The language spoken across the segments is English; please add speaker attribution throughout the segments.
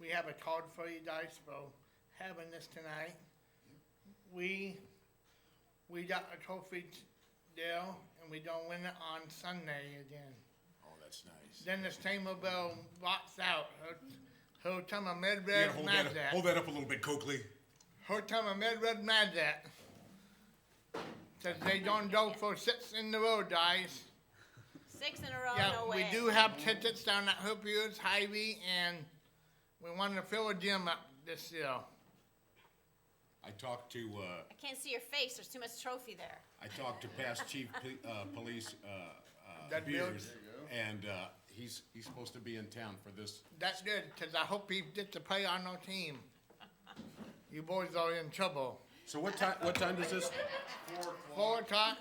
Speaker 1: we have a card for you guys for having this tonight. We, we got a trophy t- deal, and we don't win it on Sunday again.
Speaker 2: Oh, that's nice.
Speaker 1: Then this Tamer Bell walks out. Her, her time a med
Speaker 3: Yeah,
Speaker 1: red
Speaker 3: hold
Speaker 1: mad
Speaker 3: that,
Speaker 1: that.
Speaker 3: hold that up a little bit, Coakley.
Speaker 1: Her time a med red mad that. Says they don't go for six in the row, guys.
Speaker 4: Six in a row,
Speaker 1: Yeah,
Speaker 4: Oh, no
Speaker 1: we
Speaker 4: way.
Speaker 1: do have tickets down at Hoopier's, Hy-Vee, and we wanted to fill a gym up this year.
Speaker 2: I talked to, uh,
Speaker 4: I can't see your face. There's too much trophy there.
Speaker 2: I talked to past chief P- uh, police, uh, uh,
Speaker 1: That
Speaker 2: Beers.
Speaker 1: Beers.
Speaker 2: And, uh, he's, he's supposed to be in town for this.
Speaker 1: That's good, 'cause I hope he gets to play on our team. You boys are in trouble.
Speaker 2: So what time, what time does this?
Speaker 1: Four o'clock,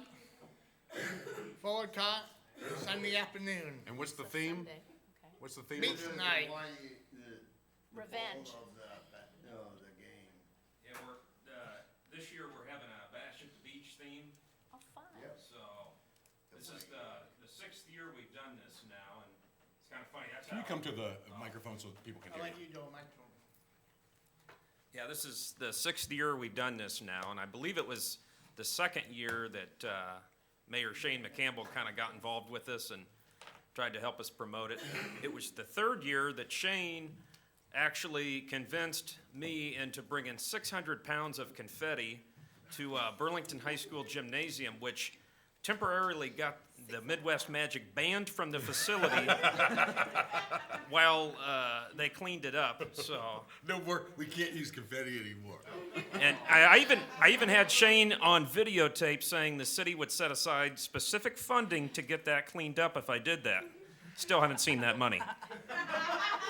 Speaker 1: four o'clock, Sunday afternoon.
Speaker 2: And what's the theme?
Speaker 4: Sunday. Okay.
Speaker 2: What's the theme?
Speaker 1: Me.
Speaker 2: of-
Speaker 1: Tonight.
Speaker 4: Revenge.
Speaker 5: Of the, ba- no, the game.
Speaker 6: Yeah, we're, uh, this year we're having a bash at the beach theme,
Speaker 4: Oh, fun.
Speaker 5: Yep.
Speaker 6: so this is the, the sixth year we've done this now, and it's kinda funny, that's
Speaker 3: Can
Speaker 6: how.
Speaker 3: you come to the microphone so people can
Speaker 1: I'll
Speaker 3: hear
Speaker 1: let
Speaker 3: you?
Speaker 1: you do it, Michael.
Speaker 6: Yeah, this is the sixth year we've done this now, and I believe it was the second year that, uh, Mayor Shane McCampbell kinda got involved with this and tried to help us promote it. It was the third year that Shane actually convinced me into bringing six hundred pounds of confetti to, uh, Burlington High School Gymnasium, which temporarily got the Midwest Magic banned from the facility while, uh, they cleaned it up, so.
Speaker 3: No, we're, we can't use confetti anymore.
Speaker 6: And I, I even I even had Shane on videotape saying the city would set aside specific funding to get that cleaned up if I did that. Still haven't seen that money.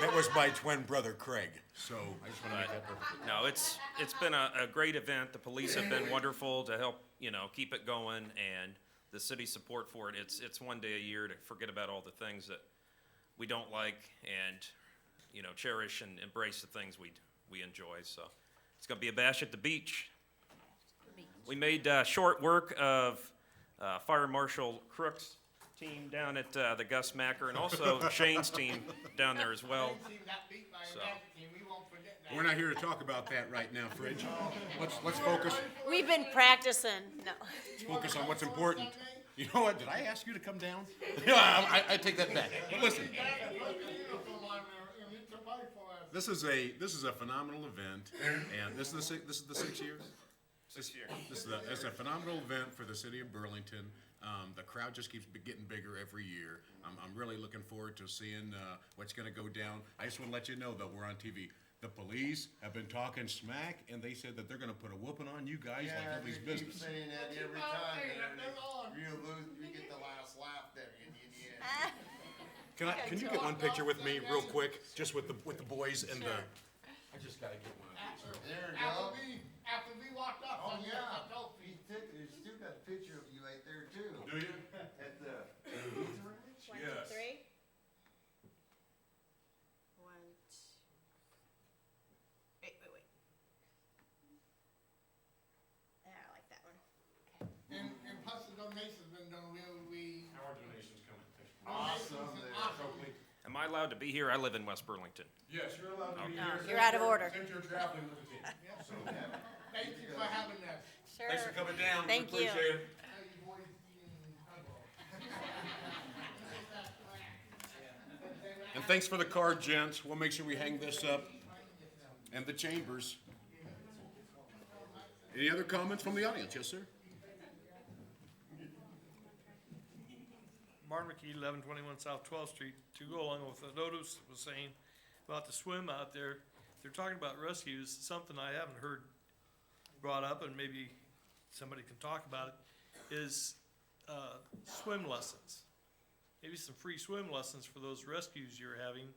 Speaker 3: That was my twin brother Craig.
Speaker 2: So, I just wanna make that perfect.
Speaker 6: No, it's it's been a, a great event. The police have been wonderful to help you know keep it going, and the city support for it. It's it's one day a year to forget about all the things that we don't like and you know cherish and embrace the things we we enjoy. So it's gonna be a bash at the beach. We made uh, short work of uh, Fire Marshal Crook's team down at uh, the Gus Macker and also Shane's team down there as well.
Speaker 1: They team got beat by a
Speaker 6: so.
Speaker 1: bad team, we won't forget that.
Speaker 2: We're not here to talk about that right now, Fridge. Let's, let's focus,
Speaker 4: We've been practicing. No.
Speaker 2: let's focus on what's important. You know what, did I ask you to come down? Yeah, I, I- I take that back. But listen, this is a, this is a phenomenal event, and this is the, si- this is the sixth year?
Speaker 6: Six years.
Speaker 2: This is a, it's a phenomenal event for the city of Burlington. Um, the crowd just keeps be- getting bigger every year. I'm, I'm really looking forward to seeing, uh, what's gonna go down. I just wanna let you know that we're on TV. The police have been talking smack, and they said that they're gonna put a whooping on you guys like
Speaker 5: Yeah,
Speaker 2: nobody's
Speaker 5: you keep
Speaker 2: business.
Speaker 5: saying that every time, and then you lose, you get the last laugh there in the end.
Speaker 3: Can I, can you get one picture with me real quick, just with the, with the boys and the,
Speaker 2: I just gotta get one.
Speaker 5: There you
Speaker 1: After
Speaker 5: go.
Speaker 1: we, after we walked off
Speaker 5: Oh,
Speaker 1: on the
Speaker 5: yeah,
Speaker 1: trophy.
Speaker 5: he took, he still got a picture of you right there too,
Speaker 3: do you?
Speaker 5: at the.
Speaker 4: One, two,
Speaker 3: Yes.
Speaker 4: three. One, two. Wait, wait, wait. Yeah, Ah, I like that one.
Speaker 1: And, and plus the donation's been done, we, we.
Speaker 6: Our donations coming.
Speaker 5: Awesome
Speaker 1: donations and
Speaker 5: there.
Speaker 1: Awesome.
Speaker 6: Am I allowed to be here? I live in West Burlington.
Speaker 3: Yes, you're allowed to be
Speaker 4: No, here. you're out of order.
Speaker 3: Since you're traveling with the team.
Speaker 1: Thank you for having us.
Speaker 4: Sure.
Speaker 3: Thanks for coming down. We
Speaker 4: Thank you.
Speaker 3: appreciate it.
Speaker 1: How you boys doing?
Speaker 2: And thanks for the card, gents. We'll make sure we hang this up. And the chambers. Any other comments from the audience? Yes, sir?
Speaker 7: Martin McKee, eleven twenty-one South Twelfth Street, to go along with the notice that was saying about the swim out there. They're talking about rescues, something I haven't heard brought up, and maybe somebody can talk about it, is, uh, swim lessons. Maybe some free swim lessons for those rescues you're having.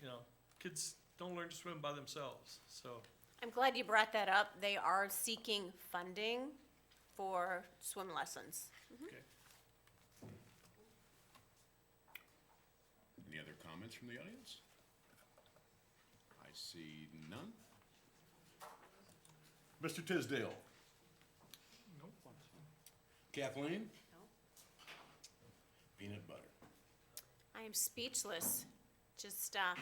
Speaker 7: You know, kids don't learn to swim by themselves, so.
Speaker 4: I'm glad you brought that up. They are seeking funding for swim lessons.
Speaker 2: Any other comments from the audience? I see none. Mr. Tisdale? Kathleen?
Speaker 4: No.
Speaker 2: Peanut butter.
Speaker 4: I am speechless. Just, uh,